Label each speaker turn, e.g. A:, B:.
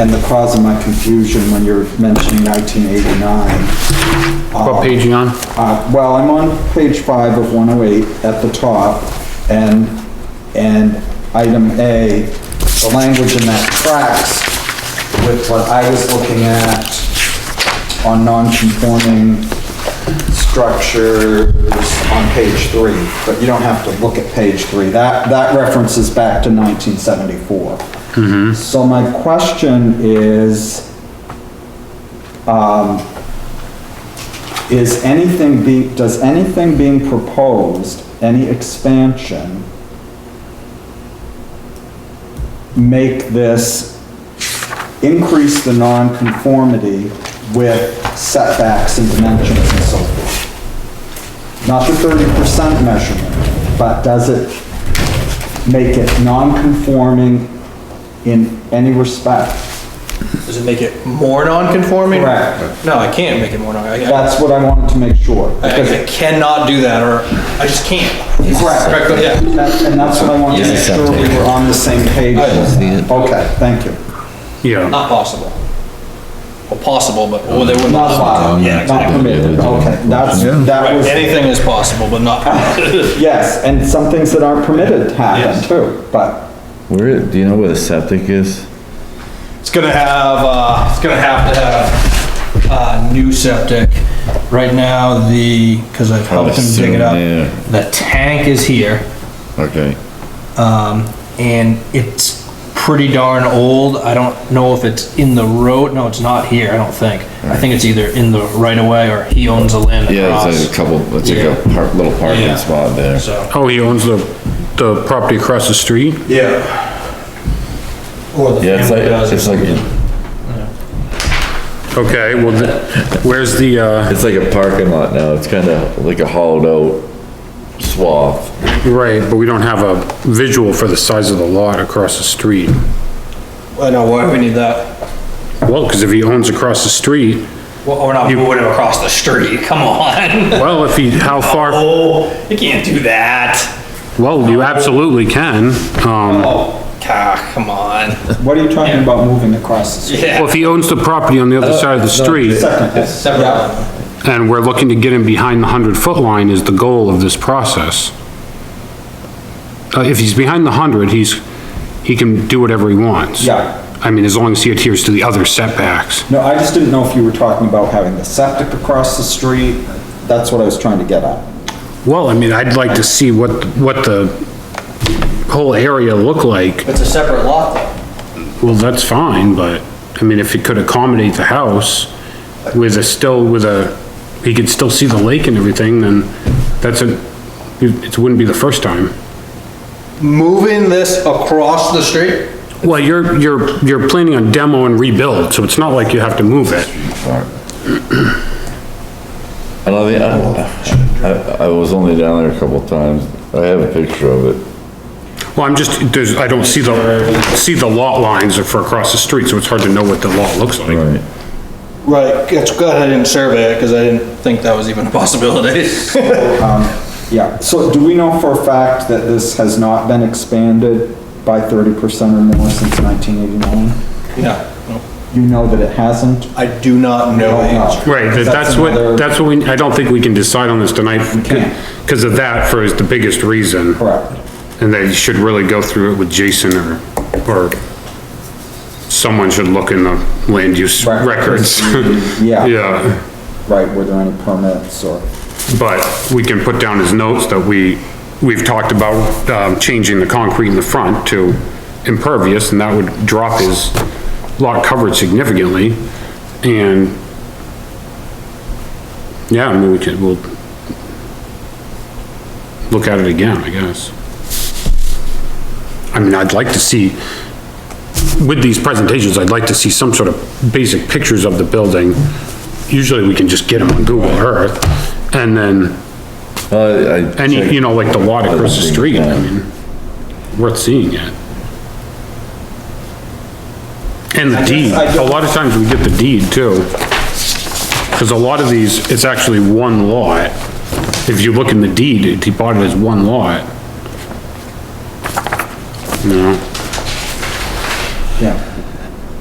A: and the cause of my confusion when you're mentioning nineteen eighty-nine.
B: What page you on?
A: Uh, well, I'm on page five of one oh eight at the top, and, and item A, the language in that tracks with what I was looking at on non-conforming structures on page three, but you don't have to look at page three. That, that references back to nineteen So my question is, is anything be, does anything being proposed, any expansion, make this, increase the nonconformity with setbacks and dimensions and so forth? Not the thirty percent measurement, but does it make it non-conforming in any respect?
C: Does it make it more non-conforming?
A: Correct.
C: No, I can't make it more non, I, I-
A: That's what I wanted to make sure. because-
C: I cannot do that, or I just can't.
A: Correct.
C: Yeah,
A: That- And that's what I wanted to make sure we were on the same page. Okay, thank you.
B: Yeah.
C: not possible. Well, possible, but, well, they wouldn't.
A: Not allowed,
C: Yeah,
A: not
C: exactly.
A: permitted, okay, that's, that
C: Right,
A: was,
C: anything is possible, but not.
A: yes, and some things that aren't permitted happen
C: Yes.
A: too, but,
D: Where, do you know where the septic is?
C: It's gonna have, uh, it's gonna have to have, uh, new septic. Right now, the, cause I've helped him dig it up.
D: Probably soon,
C: The tank is here.
D: Okay.
C: Um, and it's pretty darn old. I don't know if it's in the road. No, it's not here, I don't think. I think it's either in the right of way or he owns the land
D: Yeah, it's like a
C: across.
D: couple, it's like a
C: Yeah.
D: par- little
C: Yeah.
D: parking spot there.
C: So,
B: Oh, he owns the, the property across the street?
C: yeah. Or the
D: Yeah, it's
C: family
D: like,
C: does.
D: it's
C: it.
D: like,
B: Okay, well, the- where's the, uh,
D: it's like a parking lot now. It's kinda like a hollowed out swath.
B: right, but we don't have a visual for the size of the lot across the street.
C: I know, why we need that?
B: Well, because if he owns across the street,
C: Well, we're not moving across the street, come on.
B: well, if he, how far,
C: Oh, you can't do that.
B: well, you absolutely can. Um,
C: Oh, ah, come on.
A: what are you talking about moving across the street?
B: well,
C: Yeah.
B: if he owns the property on the other side of the street,
A: Second,
C: Separate one.
B: and we're looking to get him behind the hundred foot line is the goal of this process. Uh, if he's behind the hundred, he's, he can do whatever he wants.
A: Yeah.
B: I mean, as long as he adheres to the other setbacks.
A: no, I just didn't know if you were talking about having the septic across the street, that's what I was trying to get at.
B: Well, I mean, I'd like to see what, what the whole area look like.
C: It's a separate lot though.
B: Well, that's fine, but, I mean, if he could accommodate the house with a still, with a, he could still see the lake and everything, then that's a, it wouldn't be the first time.
C: Moving this across the street?
B: Well, you're, you're, you're planning on demo and rebuild, so it's not like you have to move it.
D: And I think, I, I, I was only down there a couple times. I have a picture of it.
B: Well, I'm just, there's, I don't see the, see the lot lines for across the street, so it's hard to know what the lot looks like.
D: Right.
C: Right, it's good I didn't survey it, because I didn't think that was even a possibility.
A: Yeah, so do we know for a fact that this has not been expanded by thirty percent or more since nineteen eighty-nine?
C: No,
A: You know that it hasn't?
C: I do not know the answer.
B: Right, that- that's
A: another-
B: what, that's what we, I don't think we can decide on this tonight
A: can't.
B: because of that for is the biggest reason.
A: Correct.
B: And they should really go through it with Jason or, or someone should look in the land use
A: Right.
B: records.
A: Yeah.
B: Yeah,
A: Right, were there any permits or?
B: but we can put down his notes that we, we've talked about, um, changing the concrete in the front to impervious and that would drop his lot coverage significantly and yeah, I mean, we could, we'll look at it again, I guess. I mean, I'd like to see, with these presentations, I'd like to see some sort of basic pictures of the building. Usually we can just get them on Google Earth, and then,
D: Uh, I.
B: any, you know, like the lot across the street, I mean, worth seeing it. And the deed, a lot of times we get the deed too. Cause a lot of these, it's actually one lot. If you look in the deed, it- he bought it as one lot. No,
A: Yeah.